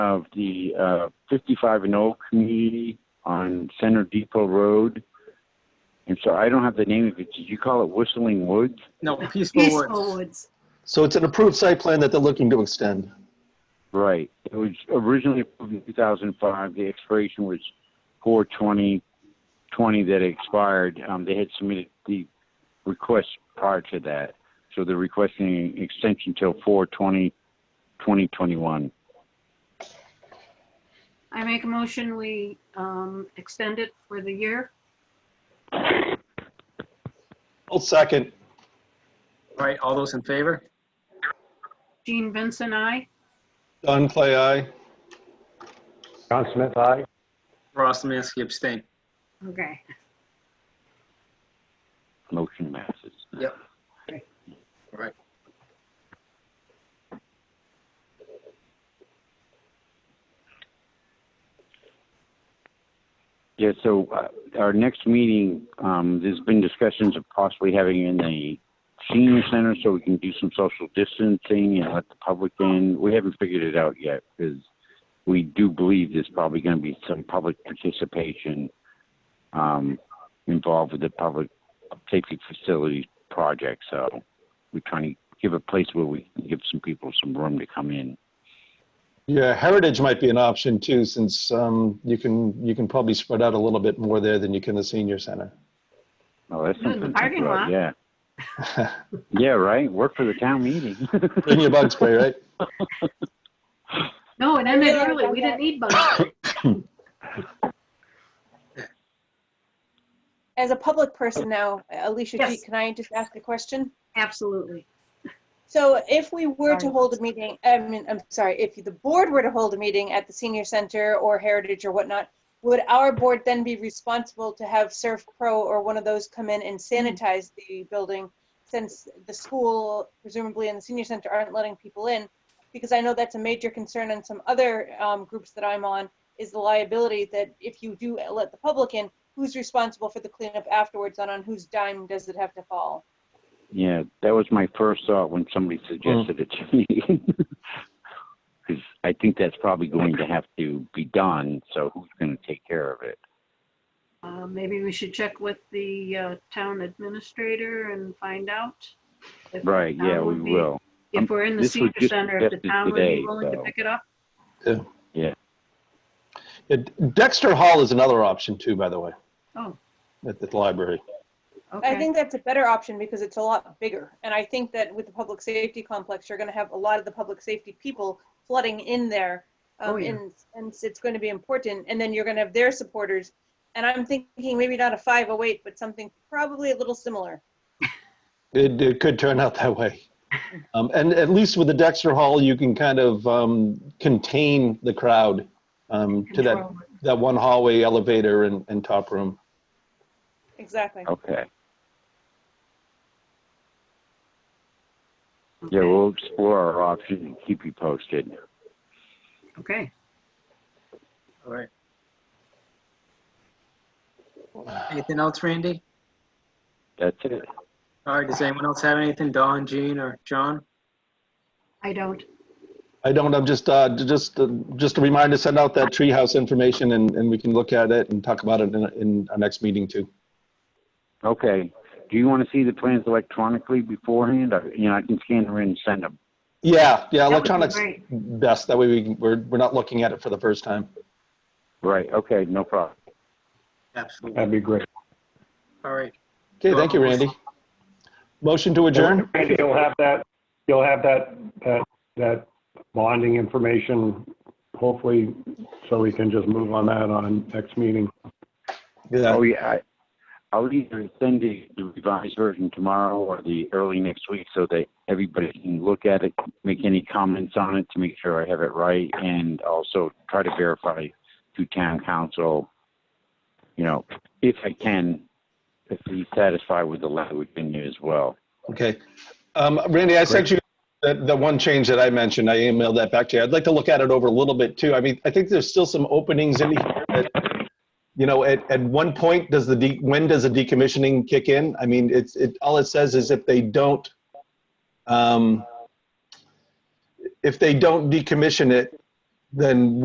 of the uh, 55 and old community on Center Depot Road. And so I don't have the name of it. Did you call it Whistling Woods? No, Peaceful Peaceful Woods. Woods. So it's an approved site plan that they're looking to extend. Right. It was originally approved in 2005. The expiration was 4/20/20 that expired. Um, they had submitted the request prior to that, so they're requesting an extension till 4/20/2021. I make a motion, we um, extend it for the year. I'll second. All right, all those in favor? Jean Vincent, I. Don Clay, aye. John Smith, aye. Ross Lemansky abstain. Okay. Motion passes. Yeah, so uh, our next meeting, um, there's been discussions of possibly having in the senior center so we can do some social distancing and let the public in. We haven't figured it out yet because we do believe there's probably going to be some public participation um, involved with the public safety facility project. So we're trying to give a place where we can give some people some room to come in. Yeah, Heritage might be an option too, since um, you can, you can probably spread out a little bit more there than you can the senior center. Oh, that's Ooh, the something. to parking think about, lot. Yeah. Yeah, right. Work for the town meeting. Bring your bug spray, right? No, it ended early. We didn't need both. As a public person now, Alicia, G, Yes. can I just ask a question? Absolutely. So if we were to Sorry. hold a meeting, I mean, I'm sorry, if the board were to hold a meeting at the senior center or Heritage or whatnot, would our board then be responsible to have Surf Pro or one of those come in and sanitize the building? Since the school presumably and the senior center aren't letting people in? Because I know that's a major concern on some other um, groups that I'm on, is the liability that if you do let the public in, who's responsible for the cleanup afterwards and on whose dime does it have to fall? yeah, that was my first thought when somebody suggested it to me. Because I think that's probably going to have to be done. So who's going to take care of it? Uh, Maybe we should check with the uh, town administrator and find out. if the Right. Yeah, town we would be- will. If we're in the This was senior just center, if the suggested town would be today, willing to so. pick it up. Yeah, Dexter Hall is another option too, by the way, Oh, at the library. I okay. think that's a better option because it's a lot bigger. And I think that with the public safety complex, you're gonna have a lot of the public safety people flooding in there. Oh, Um, yeah. and, and it's gonna be important. And then you're gonna have their supporters. And I'm thinking maybe not a 508, but something probably a little similar. It, it could turn out that way. Um, and at least with the Dexter Hall, you can kind of um, contain the crowd um, to that, Control it. that one hallway elevator and, and top room. Exactly. Okay. Yeah, Okay. we'll explore our options and keep you posted. Okay. All right. Anything else, Randy? That's it. All right, does anyone else have anything? Don, Jean, or John? I don't. I don't, I'm just, uh, just, uh, just a reminder, send out that treehouse information and, and we can look at it and talk about it in, in our next meeting too. Okay. Do you want to see the plans electronically beforehand? Or, you know, I can scan them in and send them. Yeah, That would yeah, be electronics great. best. That way we, can- we're, we're not looking at it for the first time. Right. Okay. No problem. Absolutely. That'd be great. All right. Okay, thank you, Randy. Motion to adjourn? Randy, You'll have that, you'll have that, that, that bonding information, hopefully, so we can just move on that on next meeting. Yeah. Oh, yeah. I- I'll either send the the revised version tomorrow or the early next week so that everybody can look at it, make any comments on it to make sure I have it right, and also try to verify through town council, you know, if I can, if he's satisfied with the language in there as well. Okay. Um, Randy, I sent you that, the one change that I mentioned. I emailed that back to you. I'd like to look at it over a little bit too. I mean, I think there's still some openings in here that, you know, at, at one point, does the, de- when does the decommissioning kick in? I mean, it's, it, all it says is if they don't, um, if they don't decommission it, then